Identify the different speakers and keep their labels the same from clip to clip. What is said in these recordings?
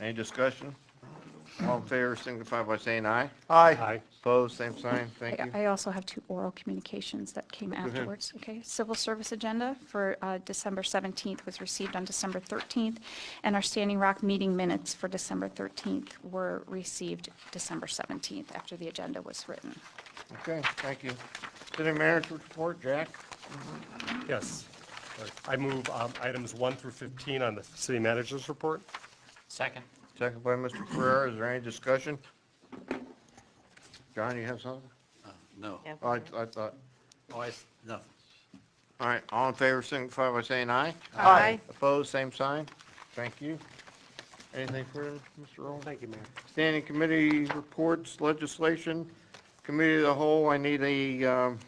Speaker 1: Any discussion? All in favor, signify by saying aye.
Speaker 2: Aye.
Speaker 1: Opposed, same sign, thank
Speaker 3: I-
Speaker 1: you.
Speaker 3: I also have two oral communications that came afterwards, okay? Civil service agenda for uh, December 17th was received on December 13th, and our Standing Rock meeting minutes for December 13th were received December 17th after the agenda was written.
Speaker 1: Okay, thank you. City manager report, Jack?
Speaker 2: Yes. I move um, items 1 through 15 on the city manager's report.
Speaker 4: Second.
Speaker 1: Second by Mr. Ferrera, is there any discussion? John, you have something? Oh,
Speaker 4: No.
Speaker 5: Yeah.
Speaker 1: I, I thought,
Speaker 4: Always, nothing.
Speaker 1: all right, all in favor, signify by saying aye.
Speaker 5: Aye.
Speaker 1: Opposed, same sign, thank you. Anything further, Mr. Roll?
Speaker 2: Thank you, Mayor.
Speaker 1: Standing committee reports, legislation, committee of the whole, I need a, um,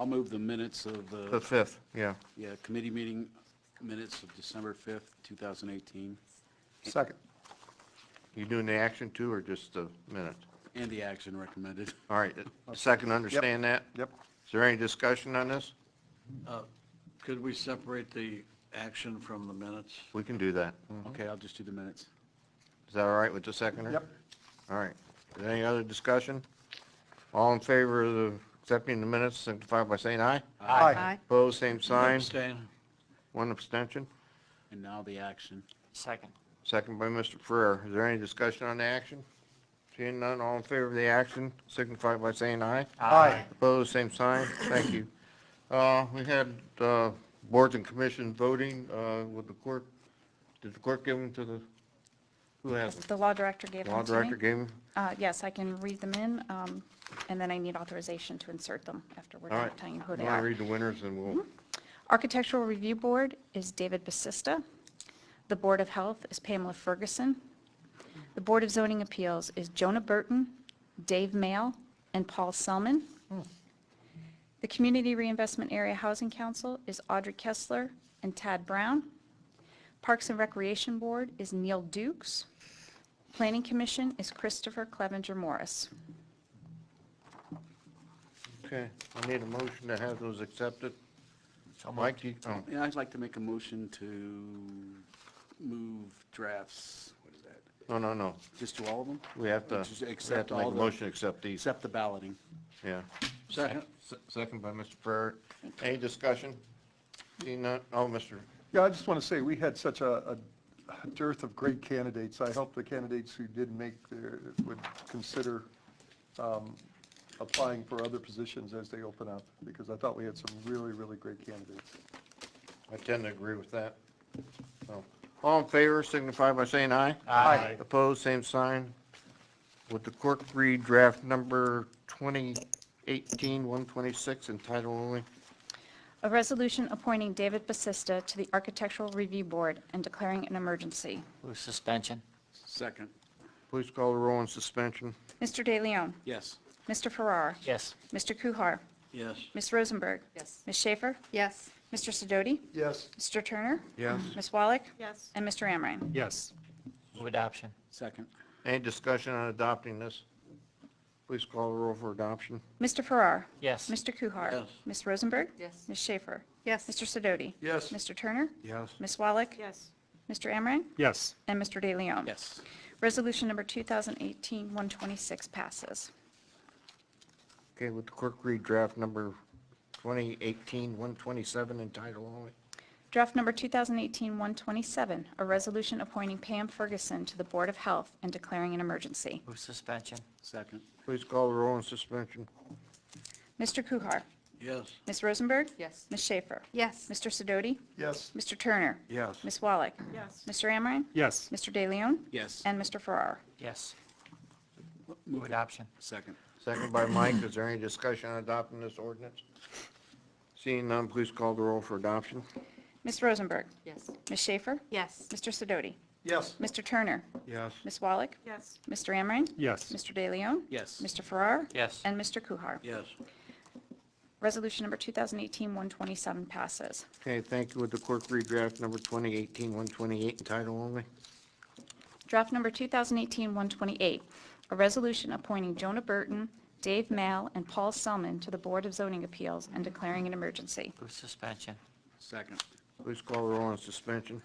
Speaker 6: I'll move the minutes of
Speaker 1: the
Speaker 6: the,
Speaker 1: fifth, yeah.
Speaker 6: yeah, committee meeting minutes of December 5th, 2018,
Speaker 1: Second. You doing the action too, or just the minute?
Speaker 6: and the action recommended.
Speaker 1: All right, second, understand that?
Speaker 7: Yep.
Speaker 1: Is there any discussion on this?
Speaker 6: Uh, Could we separate the action from the minutes?
Speaker 1: We can do that.
Speaker 6: Okay, I'll just do the minutes.
Speaker 1: Is that all right with the second?
Speaker 7: Mm-hmm. Yep.
Speaker 1: All right. Is there Any other discussion? All in favor of the- accepting the minutes, signify by saying aye.
Speaker 5: Aye.
Speaker 1: Opposed, same sign,
Speaker 6: Abstain.
Speaker 1: one abstention.
Speaker 6: And now the action.
Speaker 4: Second.
Speaker 1: Second by Mr. Ferrer. Is there any discussion on the action? Seeing none, all in favor of the action, signify by saying aye.
Speaker 7: Aye.
Speaker 1: Opposed, same sign. Thank you. Uh, We had uh, boards and commission voting uh, with the clerk. Did the clerk give them to the, who has them?
Speaker 3: The law director gave
Speaker 1: Law
Speaker 3: them to
Speaker 1: director
Speaker 3: me.
Speaker 1: gave them?
Speaker 3: Uh, Yes, I can read them in, um, and then I need authorization to insert them after we're
Speaker 1: All
Speaker 3: done
Speaker 1: right.
Speaker 3: telling you who
Speaker 1: You
Speaker 3: they
Speaker 1: want to
Speaker 3: are. Mm-hmm.
Speaker 1: read the winners and we'll,
Speaker 3: Architectural Review Board is David Basista. The Board of Health is Pamela Ferguson. The Board of Zoning Appeals is Jonah Burton, Dave Mail, and Paul Selman. The Community Reinvestment Area Housing Council is Audrey Kessler and Tad Brown. Parks and Recreation Board is Neil Dukes. Planning Commission is Christopher Clevenger Morris.
Speaker 1: okay, I need a motion to have those accepted.
Speaker 4: So
Speaker 1: Mike, you, oh,
Speaker 6: And I'd like to make a motion to move drafts, what is that?
Speaker 1: no, no, no.
Speaker 6: Just to all of them?
Speaker 1: We have to,
Speaker 6: Just
Speaker 1: we have
Speaker 6: accept
Speaker 1: to make a
Speaker 6: all the-
Speaker 1: motion to accept these,
Speaker 6: Except the balloting.
Speaker 1: yeah.
Speaker 6: Second.
Speaker 1: Se- Second by Mr. Ferrer. Any discussion? Seeing none, oh, Mr.
Speaker 7: Yeah, I just want to say, we had such a a dearth of great candidates. I hope the candidates who did make their, would consider um, applying for other positions as they open up, because I thought we had some really, really great candidates.
Speaker 1: I tend to agree with that. So, All in favor, signify by saying aye.
Speaker 2: Aye.
Speaker 1: Opposed, same sign. Would the clerk read draft number 2018-126 in title only?
Speaker 3: A resolution appointing David Basista to the Architectural Review Board and declaring an emergency.
Speaker 4: Move suspension.
Speaker 6: Second,
Speaker 1: Please call the roll on suspension.
Speaker 3: Mr. De Leon,
Speaker 6: yes.
Speaker 3: Mr. Farrar,
Speaker 4: Yes.
Speaker 3: Mr. Kuhar,
Speaker 6: Yes.
Speaker 3: Ms. Rosenberg.
Speaker 5: Yes.
Speaker 3: Ms. Schaefer,
Speaker 5: Yes.
Speaker 3: Mr. Sidoti,
Speaker 7: Yes.
Speaker 3: Mr. Turner,
Speaker 1: Yes.
Speaker 3: Ms. Wallach,
Speaker 5: Yes.
Speaker 3: and Mr. Amrine.
Speaker 2: Yes.
Speaker 4: Move adoption.
Speaker 6: Second,
Speaker 1: Any discussion on adopting this? Please call the roll for adoption.
Speaker 3: Mr. Farrar,
Speaker 4: Yes.
Speaker 3: Mr. Kuhar.
Speaker 6: Yes.
Speaker 3: Ms. Rosenberg.
Speaker 5: Yes.
Speaker 3: Ms. Schaefer,
Speaker 5: Yes.
Speaker 3: Mr. Sidoti.
Speaker 1: Yes.
Speaker 3: Mr. Turner,
Speaker 1: Yes.
Speaker 3: Ms. Wallach,
Speaker 5: Yes.
Speaker 3: Mr. Amrine,
Speaker 2: Yes.
Speaker 3: and Mr. De Leon.
Speaker 6: yes.
Speaker 3: Resolution number 2018-126 passes.
Speaker 1: Okay, would the clerk read draft number 2018-127 in title only?
Speaker 3: Draft number 2018-127, a resolution appointing Pam Ferguson to the Board of Health and declaring an emergency.
Speaker 4: Move suspension.
Speaker 6: Second,
Speaker 1: Please call the roll on suspension.
Speaker 3: Mr. Kuhar,
Speaker 6: yes.
Speaker 3: Ms. Rosenberg,
Speaker 5: Yes.
Speaker 3: Ms. Schaefer,
Speaker 5: Yes.
Speaker 3: Mr. Sidoti,
Speaker 7: Yes.
Speaker 3: Mr. Turner,
Speaker 1: Yes.
Speaker 3: Ms. Wallach,
Speaker 5: Yes.
Speaker 3: Mr. Amrine,
Speaker 2: Yes.
Speaker 3: Mr. De Leon,
Speaker 6: Yes.
Speaker 3: and Mr. Farrar.
Speaker 4: Yes. Move adoption.
Speaker 6: Second,
Speaker 1: Second by Mike. Is there any discussion on adopting this ordinance? Seeing none, please call the roll for adoption.
Speaker 3: Ms. Rosenberg,
Speaker 5: Yes.
Speaker 3: Ms. Schaefer,
Speaker 5: Yes.
Speaker 3: Mr. Sidoti,
Speaker 7: Yes.
Speaker 3: Mr. Turner,
Speaker 1: Yes.
Speaker 3: Ms. Wallach,
Speaker 5: Yes.
Speaker 3: Mr. Amrine,
Speaker 2: Yes.
Speaker 3: Mr. De Leon,
Speaker 6: yes.
Speaker 3: Mr. Farrar,
Speaker 4: Yes.
Speaker 3: and Mr. Kuhar.
Speaker 6: Yes.
Speaker 3: Resolution number 2018-127 passes.
Speaker 1: Okay, thank you. Would the clerk read draft number 2018-128 in title only?
Speaker 3: Draft number 2018-128, a resolution appointing Jonah Burton, Dave Mal, and Paul Selman to the Board of Zoning Appeals and declaring an emergency.
Speaker 4: Move suspension.
Speaker 6: Second,
Speaker 1: Please call the roll on suspension.